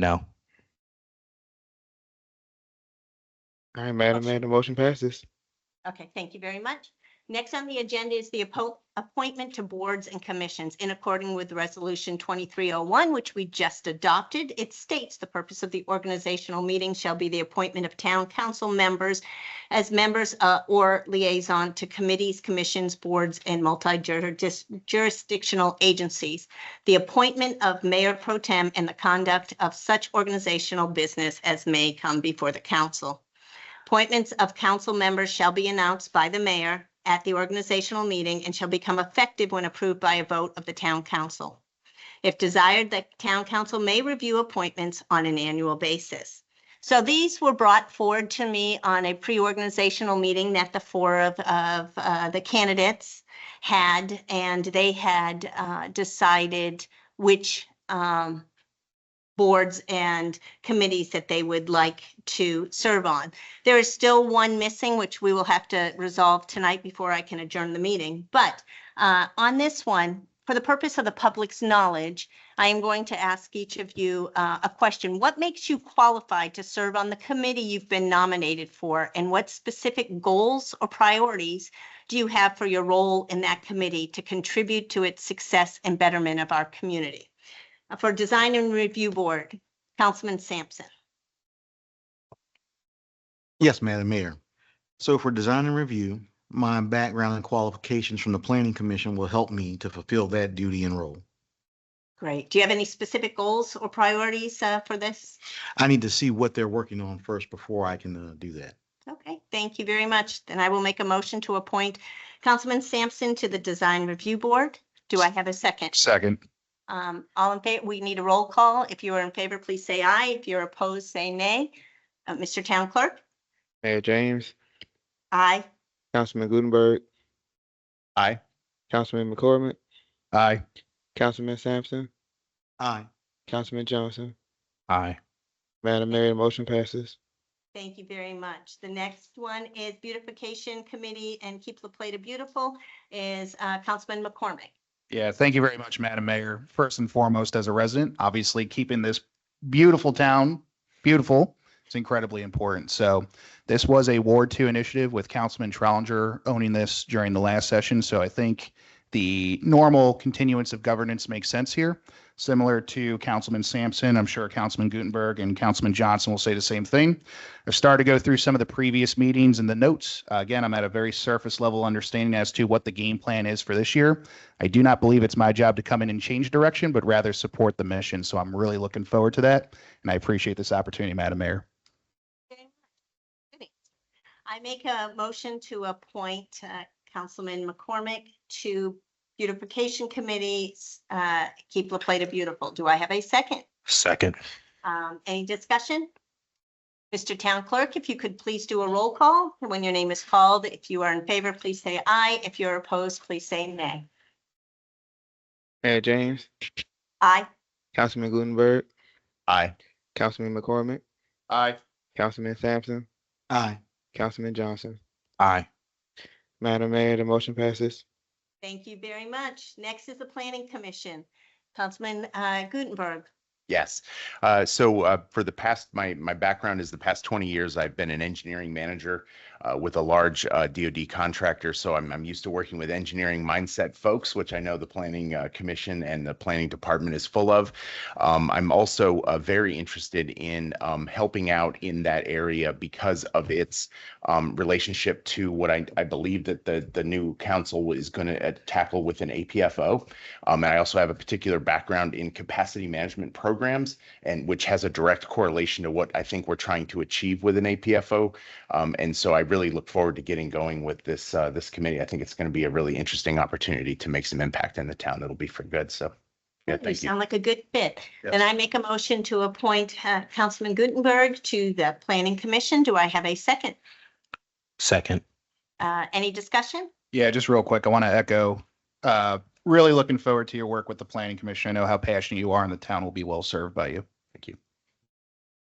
No. All right, Madam Mayor, the motion passes. Okay, thank you very much. Next on the agenda is the appo- appointment to boards and commissions in accordance with Resolution 2301, which we just adopted. It states the purpose of the organizational meeting shall be the appointment of town council members as members uh, or liaison to committees, commissions, boards, and multi-jurisdictional agencies. The appointment of mayor pro tem and the conduct of such organizational business as may come before the council. Appointments of council members shall be announced by the mayor at the organizational meeting and shall become effective when approved by a vote of the town council. If desired, the town council may review appointments on an annual basis. So these were brought forward to me on a pre-organizational meeting that the four of, of uh, the candidates had, and they had uh, decided which um, boards and committees that they would like to serve on. There is still one missing, which we will have to resolve tonight before I can adjourn the meeting. But uh, on this one, for the purpose of the public's knowledge, I am going to ask each of you uh, a question. What makes you qualified to serve on the committee you've been nominated for? And what specific goals or priorities do you have for your role in that committee to contribute to its success and betterment of our community? Uh, For Design and Review Board, Councilman Sampson. Yes, Madam Mayor. So for design and review, my background and qualifications from the Planning Commission will help me to fulfill that duty and role. Great. Do you have any specific goals or priorities uh, for this? I need to see what they're working on first before I can uh, do that. Okay, thank you very much. Then I will make a motion to appoint Councilman Sampson to the Design Review Board. Do I have a second? Second. Um, all in favor, we need a roll call. If you are in favor, please say aye. If you're opposed, say nay. Uh, Mr. Town Clerk? Mayor James, Aye. Councilman Gutenberg, Aye. Councilman McCormick, Aye. Councilman Sampson, Aye. Councilman Johnson. Aye. Madam Mayor, the motion passes. Thank you very much. The next one is Beautification Committee and Keep La Plata Beautiful is uh, Councilman McCormick. Yeah, thank you very much, Madam Mayor. First and foremost, as a resident, obviously keeping this beautiful town beautiful is incredibly important. So this was a Ward Two initiative with Councilman Trolinger owning this during the last session. So I think the normal continuance of governance makes sense here. Similar to Councilman Sampson, I'm sure Councilman Gutenberg and Councilman Johnson will say the same thing. I started to go through some of the previous meetings and the notes. Uh, Again, I'm at a very surface level understanding as to what the game plan is for this year. I do not believe it's my job to come in and change direction, but rather support the mission. So I'm really looking forward to that. And I appreciate this opportunity, Madam Mayor. I make a motion to appoint uh, Councilman McCormick to Beautification Committee, uh, Keep La Plata Beautiful. Do I have a second? Second. Um, Any discussion? Mr. Town Clerk, if you could please do a roll call when your name is called. If you are in favor, please say aye. If you're opposed, please say nay. Mayor James, Aye. Councilman Gutenberg, Aye. Councilman McCormick, Aye. Councilman Sampson, Aye. Councilman Johnson. Aye. Madam Mayor, the motion passes. Thank you very much. Next is the Planning Commission. Councilman uh, Gutenberg. Yes. Uh, so uh, for the past, my my background is the past 20 years I've been an engineering manager uh, with a large uh, DoD contractor. So I'm I'm used to working with engineering mindset folks, which I know the planning uh, commission and the planning department is full of. Um, I'm also uh, very interested in um, helping out in that area because of its um, relationship to what I I believe that the the new council is going to tackle with an APFO. Um, and I also have a particular background in capacity management programs, and which has a direct correlation to what I think we're trying to achieve with an APFO. Um, and so I really look forward to getting going with this uh, this committee. I think it's going to be a really interesting opportunity to make some impact in the town. It'll be for good. So, yeah, thank you. Sound like a good fit. Yes. Then I make a motion to appoint uh, Councilman Gutenberg to the Planning Commission. Do I have a second? Second. Uh, Any discussion? Yeah, just real quick, I want to echo, uh, really looking forward to your work with the planning commission. I know how passionate you are and the town will be well served by you. Thank you.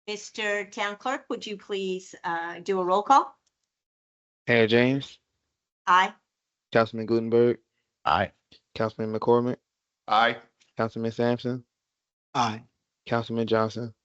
Mr. Town Clerk, would you please uh, do a roll call? Mayor James, Aye. Councilman Gutenberg, Aye. Councilman McCormick, Aye. Councilman Sampson, Aye. Councilman Johnson.